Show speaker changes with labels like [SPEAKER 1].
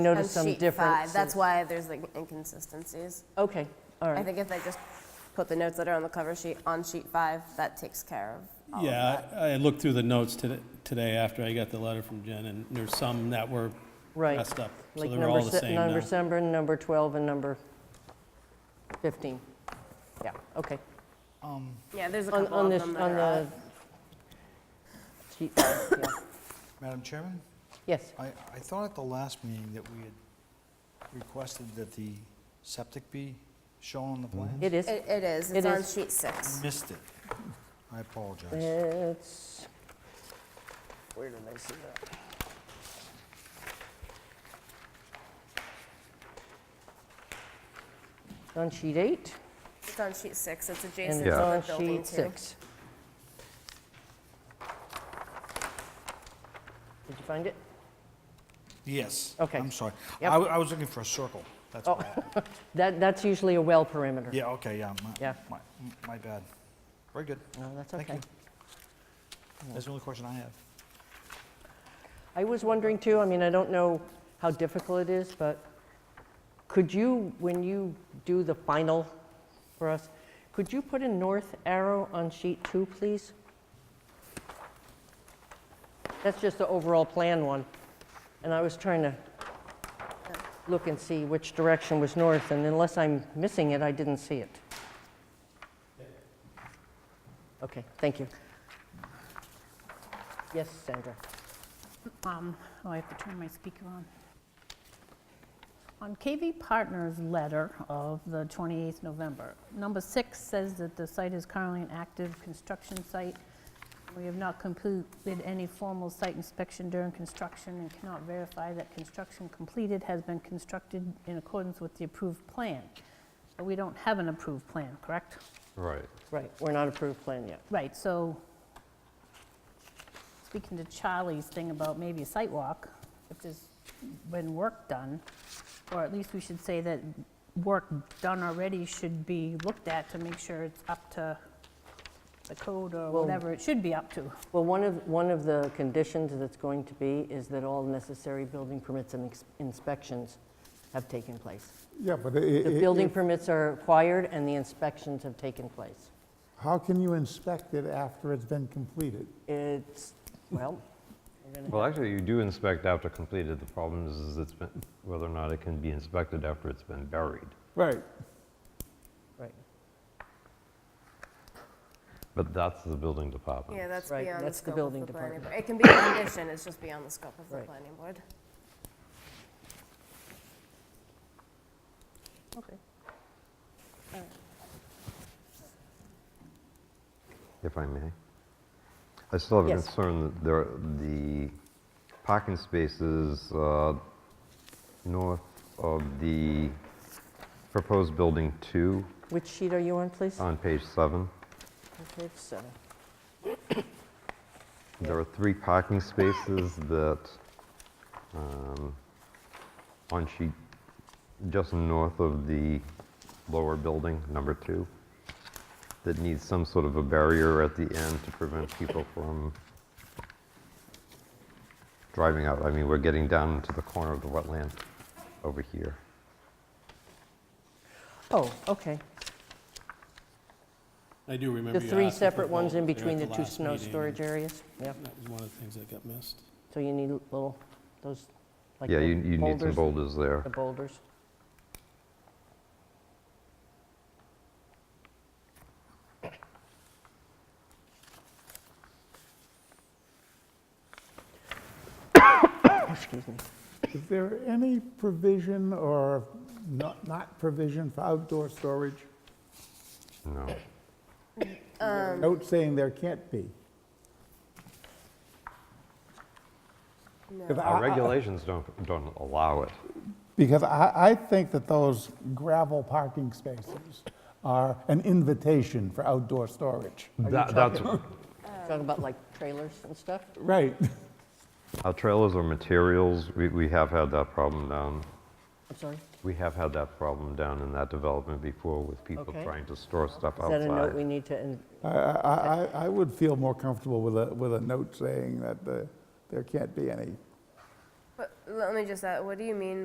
[SPEAKER 1] Notice
[SPEAKER 2] on
[SPEAKER 1] some
[SPEAKER 2] sheet five.
[SPEAKER 1] difference.
[SPEAKER 2] That's why there's like inconsistencies.
[SPEAKER 1] Okay, all
[SPEAKER 2] I
[SPEAKER 1] right.
[SPEAKER 2] think if I just put the notes that are on the cover sheet on sheet five, that takes care of all of that.
[SPEAKER 3] Yeah, I I looked through the notes today, today after I got the letter from Jen, and there's some that were
[SPEAKER 1] Right.
[SPEAKER 3] messed up. So
[SPEAKER 1] Like
[SPEAKER 3] they're
[SPEAKER 1] number,
[SPEAKER 3] all the
[SPEAKER 1] se-
[SPEAKER 3] same
[SPEAKER 1] number
[SPEAKER 3] now.
[SPEAKER 1] seven, number 12, and number 15. Yeah, okay.
[SPEAKER 2] Yeah, there's a
[SPEAKER 1] On,
[SPEAKER 2] couple
[SPEAKER 1] on
[SPEAKER 2] of
[SPEAKER 1] this,
[SPEAKER 2] them that
[SPEAKER 1] on
[SPEAKER 2] are odd.
[SPEAKER 1] the sheet, yeah.
[SPEAKER 4] Madam Chairman,
[SPEAKER 1] Yes,
[SPEAKER 4] I, I thought at the last meeting that we had requested that the septic be shown on the plan.
[SPEAKER 1] it is.
[SPEAKER 2] It it is,
[SPEAKER 1] It
[SPEAKER 2] it's on
[SPEAKER 1] is.
[SPEAKER 2] sheet six.
[SPEAKER 4] Missed it. I apologize.
[SPEAKER 1] It's, where did I see that? It's On sheet eight,
[SPEAKER 2] It's on sheet six, it's
[SPEAKER 1] and
[SPEAKER 2] adjacent
[SPEAKER 1] it's
[SPEAKER 2] to
[SPEAKER 1] on
[SPEAKER 2] the building
[SPEAKER 1] sheet
[SPEAKER 2] too.
[SPEAKER 1] six. Did you find it?
[SPEAKER 4] Yes.
[SPEAKER 1] Okay.
[SPEAKER 4] I'm sorry. I,
[SPEAKER 1] Yep.
[SPEAKER 4] w- I was looking for a circle. That's
[SPEAKER 1] Oh.
[SPEAKER 4] why. I-
[SPEAKER 1] That, that's usually a well perimeter.
[SPEAKER 4] Yeah, okay, yeah. my-
[SPEAKER 1] Yeah.
[SPEAKER 4] My, my bad. Very good.
[SPEAKER 1] No, Oh, that's
[SPEAKER 4] Thank
[SPEAKER 1] okay.
[SPEAKER 4] you. That's the only question I have.
[SPEAKER 1] I was wondering too, I mean, I don't know how difficult it is, but could you, when you do the final for us, could you put a north arrow on sheet two, please? That's just the overall plan one. And I was trying to look and see which direction was north, and unless I'm missing it, I didn't see it. Okay, thank you. Yes, Sandra?
[SPEAKER 5] Um, Oh, I have to turn my speaker on. On KV Partners' letter of the 28th November, number six says that the site is currently an active construction site. We have not completed any formal site inspection during construction and cannot verify that construction completed has been constructed in accordance with the approved plan. But we don't have an approved plan, correct?
[SPEAKER 6] Right.
[SPEAKER 1] Right, we're not approved plan yet.
[SPEAKER 5] Right, so speaking to Charlie's thing about maybe a site walk, if there's been work done, or at least we should say that work done already should be looked at to make sure it's up to the code or
[SPEAKER 1] Well-
[SPEAKER 5] whatever it should be up to.
[SPEAKER 1] Well, one of, one of the conditions that's going to be is that all necessary building permits and ex- inspections have taken place.
[SPEAKER 7] Yeah, but i-
[SPEAKER 1] The
[SPEAKER 7] i-
[SPEAKER 1] building
[SPEAKER 7] if-
[SPEAKER 1] permits are acquired and the inspections have taken place.
[SPEAKER 7] how can you inspect it after it's been completed?
[SPEAKER 1] It's, well, we're gonna-
[SPEAKER 6] Well, actually, you do inspect after completed. The problem is, is it's been, whether or not it can be inspected after it's been buried.
[SPEAKER 7] Right.
[SPEAKER 1] right,
[SPEAKER 6] But that's the building department.
[SPEAKER 2] Yeah, that's
[SPEAKER 1] Right,
[SPEAKER 2] beyond the
[SPEAKER 1] that's the
[SPEAKER 2] scope of
[SPEAKER 1] building
[SPEAKER 2] the planning board.
[SPEAKER 1] department.
[SPEAKER 2] It can be a condition, it's just beyond the scope of the
[SPEAKER 1] Right.
[SPEAKER 2] planning board.
[SPEAKER 5] Okay.
[SPEAKER 6] If I may. I still have a
[SPEAKER 1] Yes.
[SPEAKER 6] concern that there, the parking spaces uh, north of the proposed building two
[SPEAKER 1] Which sheet are you on, please?
[SPEAKER 6] on page seven,
[SPEAKER 1] Okay, so,
[SPEAKER 6] there are three parking spaces that, um, on sheet, just north of the lower building, number two, that needs some sort of a barrier at the end to prevent people from driving out. I mean, we're getting down into the corner of the wetland over here.
[SPEAKER 1] Oh, okay.
[SPEAKER 3] I do remember
[SPEAKER 1] The
[SPEAKER 3] you
[SPEAKER 1] three
[SPEAKER 3] asking for
[SPEAKER 1] separate ones
[SPEAKER 3] both
[SPEAKER 1] in
[SPEAKER 3] there at
[SPEAKER 1] between the two
[SPEAKER 3] last
[SPEAKER 1] snow
[SPEAKER 3] meeting,
[SPEAKER 1] storage
[SPEAKER 3] and
[SPEAKER 1] areas? Yeah,
[SPEAKER 3] That was one of the things that got missed.
[SPEAKER 1] so you need little, those, like
[SPEAKER 6] Yeah,
[SPEAKER 1] the
[SPEAKER 6] you you need some
[SPEAKER 1] boulders,
[SPEAKER 6] boulders there.
[SPEAKER 1] The boulders. Excuse me.
[SPEAKER 7] Is there any provision or not, not provision for outdoor storage?
[SPEAKER 6] No.
[SPEAKER 1] Um.
[SPEAKER 7] Note saying there can't be.
[SPEAKER 2] No.
[SPEAKER 7] Because I-
[SPEAKER 6] Our
[SPEAKER 7] I-
[SPEAKER 6] regulations don't don't allow it.
[SPEAKER 7] Because I, I think that those gravel parking spaces are an invitation for outdoor storage.
[SPEAKER 6] That- That's
[SPEAKER 1] Talking about like trailers and stuff?
[SPEAKER 7] Right.
[SPEAKER 6] Our trailers are materials, we, we have had that problem down,
[SPEAKER 1] I'm sorry? Is
[SPEAKER 6] we have had that problem down in that development before with people
[SPEAKER 1] Okay.
[SPEAKER 6] trying to store stuff
[SPEAKER 1] that a note we
[SPEAKER 6] outside.
[SPEAKER 1] need to, in-
[SPEAKER 7] I, I, I- I would feel more comfortable with a, with a note saying that uh, there can't be any
[SPEAKER 2] But let me just add, what do you mean